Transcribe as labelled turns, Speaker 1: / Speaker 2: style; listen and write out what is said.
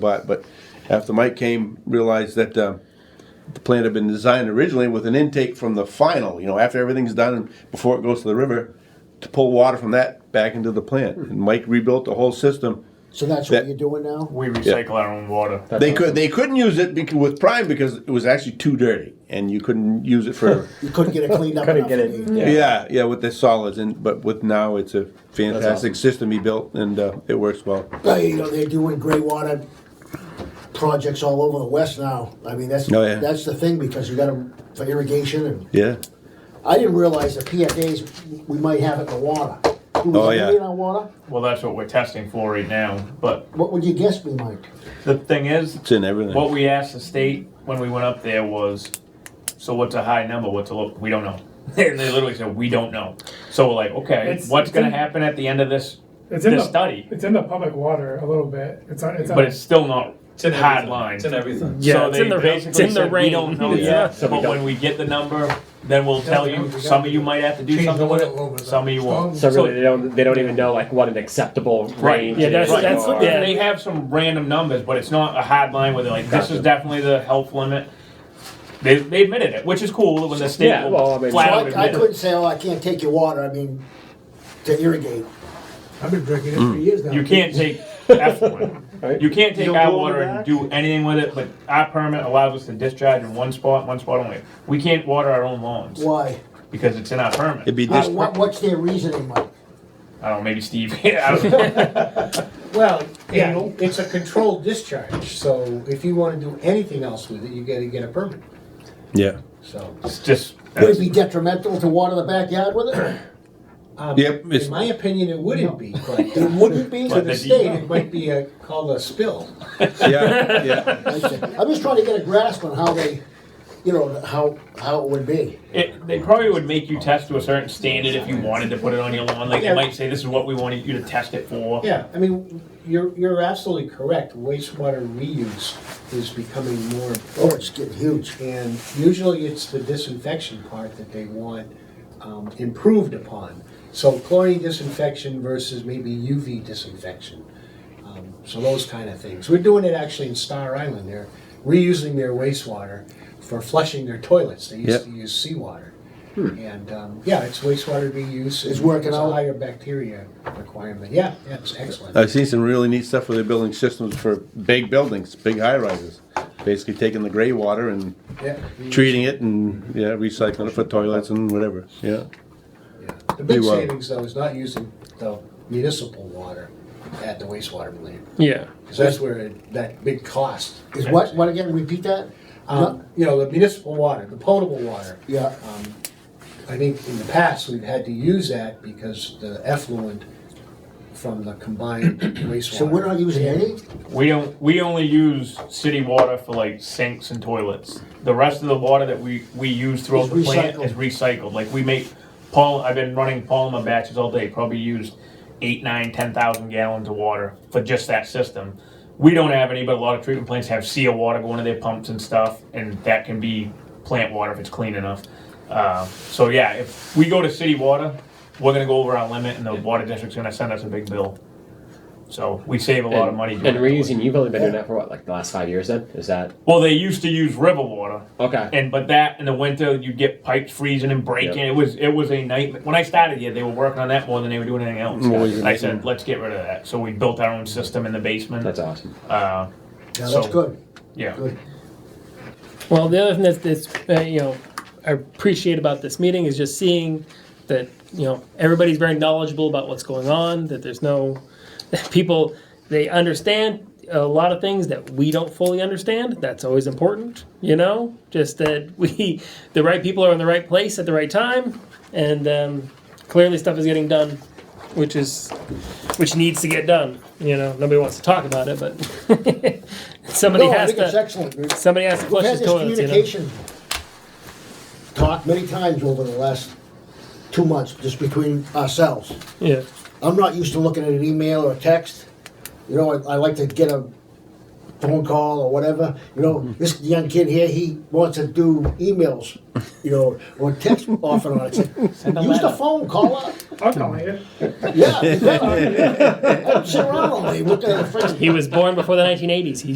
Speaker 1: bought, but after Mike came, realized that uh, the plant had been designed originally with an intake from the final, you know, after everything's done and before it goes to the river, to pull water from that back into the plant. And Mike rebuilt the whole system.
Speaker 2: So that's what
Speaker 1: That-
Speaker 2: you're doing now?
Speaker 3: We recycle our own water.
Speaker 1: They could they couldn't use it becau- with prime because it was actually too dirty, and you couldn't use it for
Speaker 2: You couldn't get it cleaned up
Speaker 4: Couldn't
Speaker 2: enough?
Speaker 4: get it. Yeah.
Speaker 1: yeah yeah with the solids. And but with now it's a fantastic
Speaker 4: awesome.
Speaker 1: system he built, and uh, it works well.
Speaker 2: Uh, You know, they're doing gray water projects all over the west now. I mean, that's,
Speaker 1: Oh, yeah.
Speaker 2: that's the thing, because you got them for irrigation and
Speaker 1: Yeah,
Speaker 2: I didn't realize that PFAs, we might have it in the water. Do we
Speaker 1: Oh,
Speaker 2: have
Speaker 1: yeah.
Speaker 2: it in our water?
Speaker 3: Well, that's what we're testing for right now. But
Speaker 2: What would you guess we might?
Speaker 3: the thing is,
Speaker 1: it's in everything.
Speaker 3: what we asked the state when we went up there was, so what's a high number? What's a low? We don't know. and they literally said we don't know. So we're like, okay,
Speaker 5: It's-
Speaker 3: what's
Speaker 5: it's
Speaker 3: going
Speaker 5: in-
Speaker 3: to happen at the end of this
Speaker 5: It's in
Speaker 3: this
Speaker 5: the
Speaker 3: study?
Speaker 5: It's in the public water a little bit. It's on. It's on.
Speaker 3: But it's still not
Speaker 6: It's in
Speaker 3: hard
Speaker 6: everything.
Speaker 3: line.
Speaker 6: It's in everything.
Speaker 4: Yeah,
Speaker 3: so
Speaker 4: it's
Speaker 3: they
Speaker 4: in the-
Speaker 3: basically
Speaker 4: it's in the
Speaker 3: said, We
Speaker 4: rain."
Speaker 3: don't know
Speaker 4: Yeah.
Speaker 3: yet,
Speaker 4: So we
Speaker 3: but
Speaker 4: don't-
Speaker 3: when we get the number, then we'll tell
Speaker 5: we
Speaker 3: you.
Speaker 5: don't.
Speaker 3: Some of you might have to do
Speaker 5: Change the
Speaker 3: something with
Speaker 5: limit a little
Speaker 3: it.
Speaker 5: bit.
Speaker 3: Some of you won't.
Speaker 4: So really,
Speaker 3: So-
Speaker 4: they don't they don't even know like what an acceptable range. Yeah, that's- is
Speaker 3: Right.
Speaker 4: or-
Speaker 3: And They have some random numbers, but it's not a hard line where they're like, this is
Speaker 4: Gotcha.
Speaker 3: definitely the health limit. They, they admitted it, which is cool when the state
Speaker 4: Yeah, well, I
Speaker 3: will
Speaker 4: mean-
Speaker 3: flat
Speaker 2: So
Speaker 3: out
Speaker 2: I, I
Speaker 3: admit
Speaker 2: couldn't
Speaker 3: it.
Speaker 2: say, oh, I can't take your water, I mean, to irrigate.
Speaker 5: I've been drinking it
Speaker 1: Hmm.
Speaker 5: for years now.
Speaker 3: You can't take effluent. You can't take
Speaker 4: You'll
Speaker 3: our
Speaker 4: go
Speaker 3: water and
Speaker 4: back?
Speaker 3: do anything with it, but our permit allows us to discharge in one spot, one spot only. We can't water our own lawns
Speaker 2: Why?
Speaker 3: because it's in our
Speaker 1: It'd
Speaker 3: permit.
Speaker 1: be
Speaker 2: Uh,
Speaker 1: this.
Speaker 2: what, what's their reasoning, Mike?
Speaker 3: I don't know, maybe Steve, I don't know.
Speaker 7: Well, yeah, it's a controlled discharge, so if you wanna do anything else with it, you gotta get a permit,
Speaker 1: yeah.
Speaker 7: so.
Speaker 3: It's just,
Speaker 2: Would it be detrimental to water the backyard with it?
Speaker 7: um,
Speaker 1: Yep, it's-
Speaker 7: In my opinion, it wouldn't be,
Speaker 2: It
Speaker 7: but
Speaker 2: wouldn't be?
Speaker 7: to
Speaker 3: But
Speaker 7: the
Speaker 3: the-
Speaker 7: state, it might be a, called a spill.
Speaker 1: Yeah, yeah.
Speaker 2: I see. I'm just trying to get a grasp on how they, you know, how, how it would be.
Speaker 3: it, they probably would make you test to a certain standard if you wanted to put it on your lawn. Like, they might say, this is what we wanted you to test it for.
Speaker 7: Yeah, I mean, you're, you're absolutely correct, wastewater reuse is becoming more
Speaker 2: Oh,
Speaker 7: important.
Speaker 2: it's getting huge.
Speaker 7: And usually it's the disinfection part that they want um, improved upon. So chlorine disinfection versus maybe UV disinfection. Um, So those kind of things. We're doing it actually in Star Island. They're reusing their wastewater for flushing their toilets. They used
Speaker 1: Yep.
Speaker 7: to use seawater. And um, yeah, it's wastewater reuse.
Speaker 2: It's working
Speaker 7: It's a
Speaker 2: out.
Speaker 7: higher bacteria requirement. Yeah, yeah, it's excellent.
Speaker 1: I've seen some really neat stuff where they're building systems for big buildings, big high rises. Basically taking the gray water and
Speaker 7: Yeah.
Speaker 1: treating it and yeah, recycling it for toilets and whatever. Yeah.
Speaker 7: Yeah. The big
Speaker 1: You, uh,
Speaker 7: savings though is not using the municipal water at the wastewater plant.
Speaker 4: yeah.
Speaker 7: Because that's where it- that big cost.
Speaker 2: Is what, what again, repeat that?
Speaker 7: Um, You know, the municipal water, the potable water.
Speaker 2: Yeah,
Speaker 7: I think in the past, we've had to use that because the effluent from the combined wastewater.
Speaker 2: so we're not using any?
Speaker 3: We don't. We only use city water for like sinks and toilets. The rest of the water that we we use throughout
Speaker 2: Is
Speaker 3: the plant
Speaker 2: recycled.
Speaker 3: is recycled. Like we make Paul. I've been running polymer batches all day. Probably used eight, nine, ten thousand gallons of water for just that system. We don't have any, but a lot of treatment plants have sea water going to their pumps and stuff, and that can be plant water if it's clean enough. Uh, so yeah, if we go to city water, we're gonna go over our limit, and the water district's gonna send us a big bill. So we save a lot of money.
Speaker 4: And
Speaker 3: doing it that way.
Speaker 4: reusing, you've only been doing that for what, like the last five years? Then is that
Speaker 3: Well, they used to use river water,
Speaker 4: okay?
Speaker 3: and but that in the winter you get pipes freezing and breaking.
Speaker 4: Yep.
Speaker 3: It was it was a nightmare. When I started here, they were working on that more than they were doing anything else.
Speaker 1: Always a
Speaker 3: I said, let's get rid of that. So we built our own system in the basement.
Speaker 4: That's awesome.
Speaker 3: uh,
Speaker 2: Yeah,
Speaker 3: so,
Speaker 2: that's good.
Speaker 3: Yeah.
Speaker 2: Good.
Speaker 8: Well, the other thing that's, that's uh, you know I appreciate about this meeting is just seeing that you know everybody's very knowledgeable about what's going on. That there's no that people they understand a lot of things that we don't fully understand. That's always important, you know. Just that we the right people are in the right place at the right time, and um, clearly stuff is getting done, which is which needs to get done. You know, nobody wants to talk about it, but. Somebody
Speaker 2: No, I
Speaker 8: has
Speaker 2: think
Speaker 8: to.
Speaker 2: it's excellent. We've Somebody has to we've
Speaker 8: flush
Speaker 2: had
Speaker 8: his
Speaker 2: this
Speaker 8: toilets, you know.
Speaker 2: communication talk many times over the last two months, just between ourselves.
Speaker 8: Yeah,
Speaker 2: I'm not used to looking at an email or a text. You know, I, I like to get a phone call or whatever. You know, this young kid here, he wants to do emails, you know, or text off and on. It's like, use the phone, call up.
Speaker 5: I'll call you.
Speaker 2: Yeah, you better. I don't sit around all day. What the friends
Speaker 8: he was born before the 1980s. He